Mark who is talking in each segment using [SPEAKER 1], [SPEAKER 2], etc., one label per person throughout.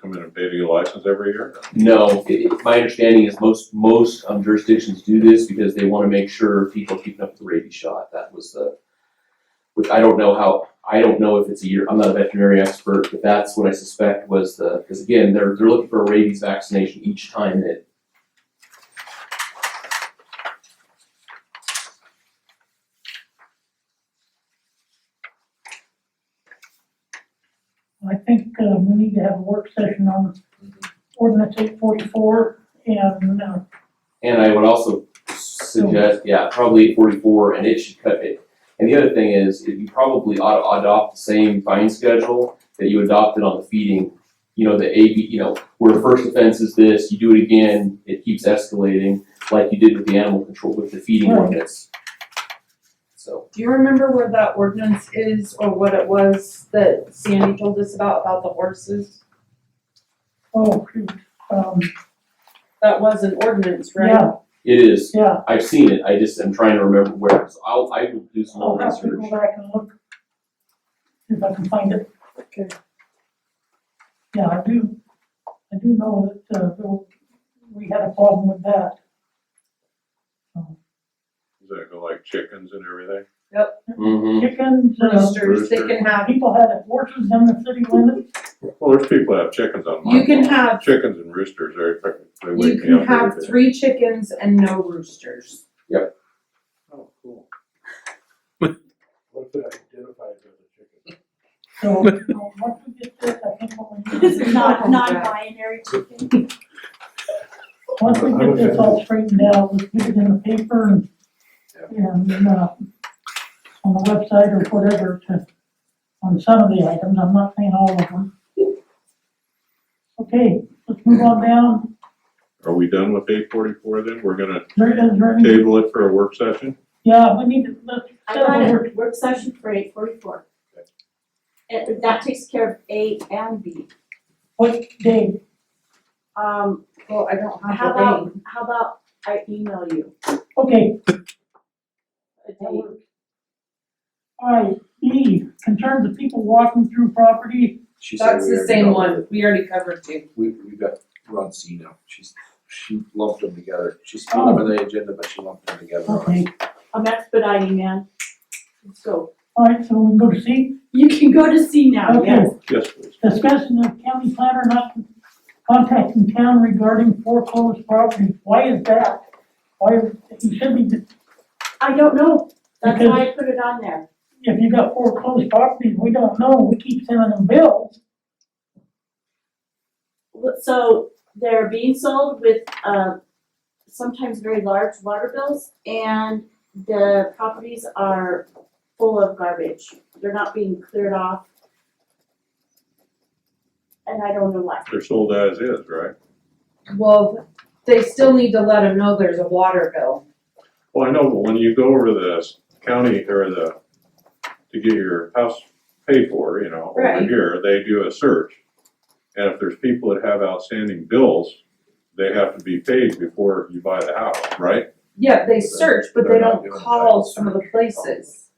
[SPEAKER 1] come in and pay your license every year?
[SPEAKER 2] No, i- i- my understanding is most, most um, jurisdictions do this because they wanna make sure people keeping up with the rabies shot, that was the, which I don't know how, I don't know if it's a year, I'm not a veterinary expert, but that's what I suspect was the, cause again, they're, they're looking for a rabies vaccination each time that
[SPEAKER 3] I think, uh, we need to have a work session on ordinance eight forty-four and, uh,
[SPEAKER 2] And I would also suggest, yeah, probably forty-four, and it should cut it. And the other thing is, if you probably ought to adopt the same fine schedule that you adopted on the feeding. You know, the A, B, you know, where first offense is this, you do it again, it keeps escalating, like you did with the animal control, with the feeding
[SPEAKER 3] Right.
[SPEAKER 2] ordinance. So,
[SPEAKER 4] Do you remember where that ordinance is or what it was that Sandy told us about, about the horses?
[SPEAKER 3] oh, shoot, um,
[SPEAKER 4] That was an ordinance, right?
[SPEAKER 3] yeah,
[SPEAKER 2] it is,
[SPEAKER 3] yeah.
[SPEAKER 2] I've seen it, I just am trying to remember where, so I'll, I will do some
[SPEAKER 3] I'll
[SPEAKER 2] more
[SPEAKER 3] have to go
[SPEAKER 2] research.
[SPEAKER 3] back and look. see If I can find it.
[SPEAKER 4] Okay.
[SPEAKER 3] Yeah, I do, I do know that, uh, there- we had a problem with that.
[SPEAKER 1] Does that go like chickens and everything?
[SPEAKER 2] Mhm.
[SPEAKER 3] Chickens, uh,
[SPEAKER 4] Roosters, they can have,
[SPEAKER 3] people had horses in the city limits,
[SPEAKER 1] Well, there's people that have chickens on my
[SPEAKER 4] you can
[SPEAKER 1] farm.
[SPEAKER 4] have,
[SPEAKER 1] Chickens and roosters, they, they
[SPEAKER 4] you
[SPEAKER 1] wake me up every day.
[SPEAKER 4] can have three chickens and no roosters.
[SPEAKER 5] Oh, cool. What could I identify as a chicken?
[SPEAKER 3] so, you know, once we get this, I think what we
[SPEAKER 6] This
[SPEAKER 3] need,
[SPEAKER 6] is not non-binary chicken.
[SPEAKER 3] once we get this all straightened out, let's get it in the paper and, and, uh, on the website or whatever to, on some of the items, I'm not saying all of them. Okay, let's move on down,
[SPEAKER 1] Are we done with eight forty-four then? We're gonna
[SPEAKER 3] Is there, is there any,
[SPEAKER 1] table it for a work session?
[SPEAKER 3] yeah, we need to, let's,
[SPEAKER 6] I got a work session for eight forty-four. And that takes care of A and B.
[SPEAKER 3] what day,
[SPEAKER 6] Um,
[SPEAKER 4] Well, I don't
[SPEAKER 6] how
[SPEAKER 4] have the
[SPEAKER 6] about,
[SPEAKER 4] name.
[SPEAKER 6] how about I email you
[SPEAKER 3] okay,
[SPEAKER 6] a
[SPEAKER 3] that
[SPEAKER 6] date?
[SPEAKER 3] works. All right, E, concerns of people walking through property,
[SPEAKER 5] She said
[SPEAKER 4] That's
[SPEAKER 5] we
[SPEAKER 4] the
[SPEAKER 5] already
[SPEAKER 4] same
[SPEAKER 5] know
[SPEAKER 4] one,
[SPEAKER 5] that
[SPEAKER 4] we already covered two.
[SPEAKER 5] We, we got, we're on C now, she's, she lumped them together, she's still on the agenda, but she lumped them together.
[SPEAKER 4] Oh.
[SPEAKER 3] Okay,
[SPEAKER 6] I'm expediting, man. Let's go.
[SPEAKER 3] alright, so we can go to C.
[SPEAKER 6] You can go to C now,
[SPEAKER 3] Okay.
[SPEAKER 6] yes.
[SPEAKER 1] Yes, please.
[SPEAKER 3] Discussion of county planner not contacting town regarding foreclosed properties. Why is that? Why, you should be,
[SPEAKER 6] I don't know. That's
[SPEAKER 3] Because-
[SPEAKER 6] why I put it on there.
[SPEAKER 3] if you got foreclosed properties, we don't know, we keep sending them bills.
[SPEAKER 6] So they're being sold with, uh, sometimes very large water bills and the properties are full of garbage. They're not being cleared off. And I don't know why.
[SPEAKER 1] They're sold as is, right?
[SPEAKER 4] Well, they still need to let them know there's a water bill.
[SPEAKER 1] Well, I know, but when you go over the county or the, to get your house paid for, you know, over
[SPEAKER 6] Right.
[SPEAKER 1] here, they do a search. And if there's people that have outstanding bills, they have to be paid before you buy the house, right?
[SPEAKER 4] Yeah, they search, but they
[SPEAKER 5] They're not
[SPEAKER 4] don't
[SPEAKER 5] doing that.
[SPEAKER 4] call some of the places.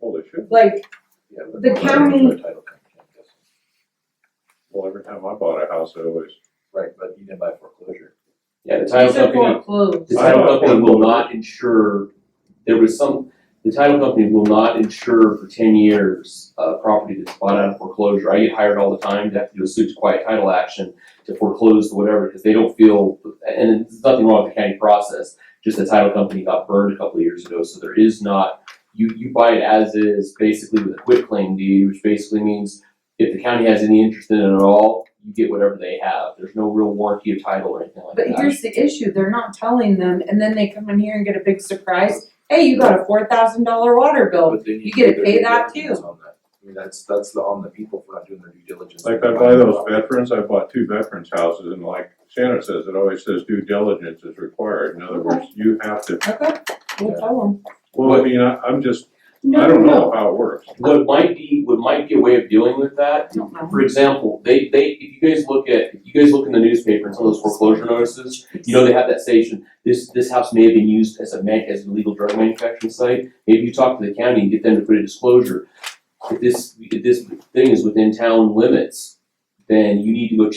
[SPEAKER 1] Well, they should.
[SPEAKER 4] Like,
[SPEAKER 5] Yeah, but-
[SPEAKER 4] The county-
[SPEAKER 5] Title company, I guess.
[SPEAKER 1] Well, every time I bought a house, I always,
[SPEAKER 5] Right, but you didn't buy foreclosure.
[SPEAKER 2] Yeah, the title
[SPEAKER 4] these are
[SPEAKER 2] company.
[SPEAKER 4] foreclosed.
[SPEAKER 2] The title company will not insure, there was some, the title company will not insure for ten years a property that's bought out of foreclosure. I get hired all the time to have to do a suit to quiet title action to foreclose or whatever, because they don't feel, and there's nothing wrong with the county process. Just the title company got burned a couple of years ago, so there is not, you, you buy it as is, basically with a quit claim deed, which basically means if the county has any interest in it at all, you get whatever they have. There's no real warranty of title or anything like that.
[SPEAKER 4] But here's the issue, they're not telling them, and then they come in here and get a big surprise, hey, you got a four thousand dollar water bill.
[SPEAKER 5] But they need
[SPEAKER 4] you
[SPEAKER 5] to do
[SPEAKER 4] get to
[SPEAKER 5] their
[SPEAKER 4] pay
[SPEAKER 5] due
[SPEAKER 4] that
[SPEAKER 5] diligence
[SPEAKER 4] too.
[SPEAKER 5] on that. I mean, that's, that's the, on the people for not doing their due diligence.
[SPEAKER 1] like I buy those veterans, I bought two veterans houses and like Shannon says, it always says due diligence is required. In other words, you have to,
[SPEAKER 4] Okay, we'll tell them.
[SPEAKER 1] well, I mean, I, I'm just,
[SPEAKER 6] No,
[SPEAKER 1] I
[SPEAKER 6] no,
[SPEAKER 1] don't
[SPEAKER 6] no.
[SPEAKER 1] know how it works.
[SPEAKER 2] What might be, what might be a way of dealing with that,
[SPEAKER 4] I don't know.
[SPEAKER 2] for example, they, they, if you guys look at, if you guys look in the newspaper and some of those foreclosure notices, you know, they have that station, this, this house may have been used as a man, as an illegal drug manufacturing site, maybe you talk to the county and get them to put a disclosure. If this, if this thing is within town limits, then you need to go